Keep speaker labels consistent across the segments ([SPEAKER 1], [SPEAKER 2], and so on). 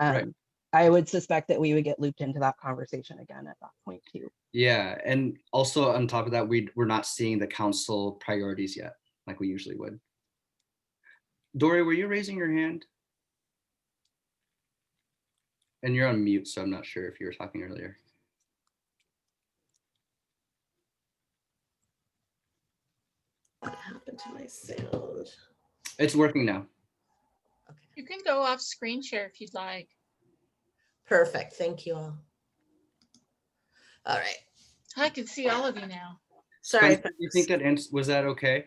[SPEAKER 1] Right.
[SPEAKER 2] Um, I would suspect that we would get looped into that conversation again at that point too.
[SPEAKER 1] Yeah, and also on top of that, we we're not seeing the council priorities yet, like we usually would. Dory, were you raising your hand? And you're on mute, so I'm not sure if you were talking earlier.
[SPEAKER 3] What happened to my sound?
[SPEAKER 1] It's working now.
[SPEAKER 3] Okay,
[SPEAKER 4] You can go off screen share if you'd like.
[SPEAKER 3] perfect. Thank you all. All right,
[SPEAKER 4] I can see all of you now.
[SPEAKER 3] sorry.
[SPEAKER 1] Spencer, do you think that ans- was that okay?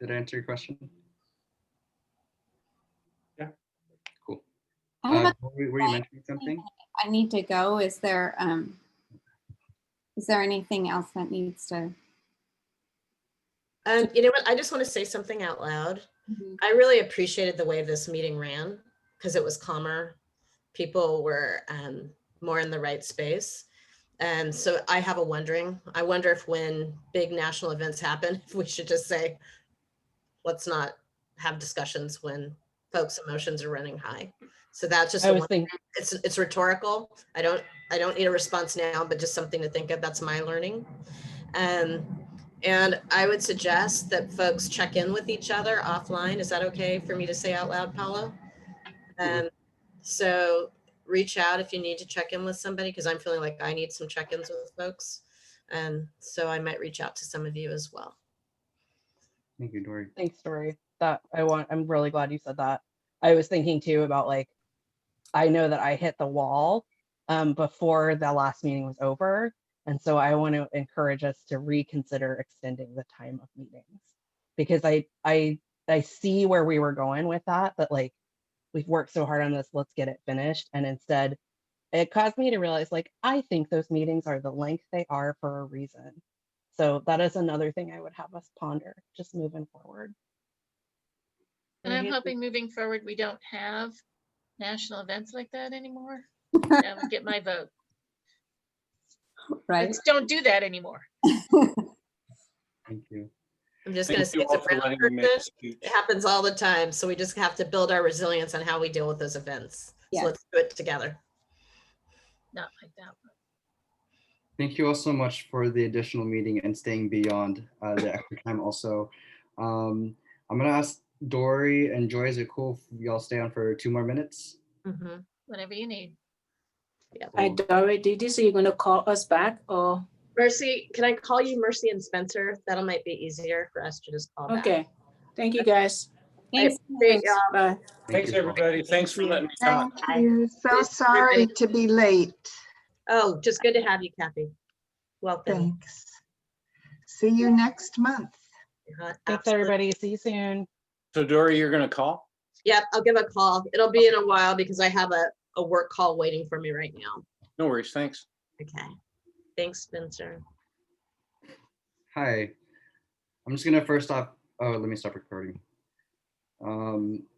[SPEAKER 1] Did I answer your question?
[SPEAKER 5] Yeah.
[SPEAKER 1] Cool.
[SPEAKER 6] I don't
[SPEAKER 1] Uh,
[SPEAKER 6] know,
[SPEAKER 1] Dory, were you mentioning something?
[SPEAKER 6] Um, I need to go. Is there, um, is there anything else that needs to?
[SPEAKER 3] Um, you know what? I just want to say something out loud. I really appreciated the way this meeting ran because it was calmer. People were um, more in the right space. And so I have a wondering, I wonder if when big national events happen, if we should just say, let's not have discussions when folks' emotions are running high. So that's just,
[SPEAKER 2] I
[SPEAKER 3] a
[SPEAKER 2] was
[SPEAKER 3] won-
[SPEAKER 2] thinking,
[SPEAKER 3] it's, it's rhetorical. I don't, I don't need a response now, but just something to think of. That's my learning. Um, and I would suggest that folks check in with each other offline. Is that okay for me to say out loud, Paolo? Um, so reach out if you need to check in with somebody, because I'm feeling like I need some check-ins with folks. And so I might reach out to some of you as well.
[SPEAKER 1] Thank you, Dory.
[SPEAKER 2] thanks, Dory. That I want, I'm really glad you said that. I was thinking too about like, I know that I hit the wall um, before the last meeting was over. And so I want to encourage us to reconsider extending the time of meetings. Because I, I, I see where we were going with that, but like, we've worked so hard on this, let's get it finished. And instead, it caused me to realize like, I think those meetings are the length they are for a reason. So that is another thing I would have us ponder, just moving forward.
[SPEAKER 4] And I'm
[SPEAKER 3] Mhm.
[SPEAKER 4] hoping moving forward, we don't have national events like that anymore. That would Get my vote.
[SPEAKER 6] Right?
[SPEAKER 4] Let's don't do that anymore.
[SPEAKER 1] Thank you.
[SPEAKER 3] I'm just gonna
[SPEAKER 5] Thank
[SPEAKER 3] say
[SPEAKER 5] you
[SPEAKER 3] it's a
[SPEAKER 5] all for
[SPEAKER 3] brown
[SPEAKER 5] letting me make a
[SPEAKER 3] person.
[SPEAKER 5] speech.
[SPEAKER 3] It happens all the time. So we just have to build our resilience on how we deal with those events.
[SPEAKER 6] Yeah.
[SPEAKER 3] So let's do it together.
[SPEAKER 4] Not like that. one.
[SPEAKER 1] Thank you all so much for the additional meeting and staying beyond uh, the extra time also. Um, I'm gonna ask Dory and Joy, is it cool if y'all stay on for two more minutes?
[SPEAKER 3] Mhm.
[SPEAKER 4] Whatever you need.
[SPEAKER 7] Hi,
[SPEAKER 1] Cool.
[SPEAKER 7] Dory, did you say you're gonna call us back Oh, or,
[SPEAKER 3] Mercy, can I call you Mercy and Spencer? That'll might be easier for us to just call back.
[SPEAKER 7] okay, thank you guys,
[SPEAKER 6] Thanks.
[SPEAKER 3] Great, y'all.
[SPEAKER 7] bye.
[SPEAKER 1] Thank
[SPEAKER 5] Thanks,
[SPEAKER 1] you all.
[SPEAKER 5] everybody. Thanks for letting me talk.
[SPEAKER 8] Thank you. So sorry to be late.
[SPEAKER 3] Oh, just good to have you, Kathy. Welcome.
[SPEAKER 8] Thanks. See you next month.
[SPEAKER 3] Uh,
[SPEAKER 2] Thanks,
[SPEAKER 3] absolutely.
[SPEAKER 2] everybody. See you soon.
[SPEAKER 5] So Dory, you're gonna call?
[SPEAKER 3] Yep, I'll give a call. It'll be in a while because I have a, a work call waiting for me right now.
[SPEAKER 5] No worries, thanks.
[SPEAKER 3] Okay. Thanks, Spencer.
[SPEAKER 1] Hi. I'm just gonna first off, oh, let me stop recording. Um,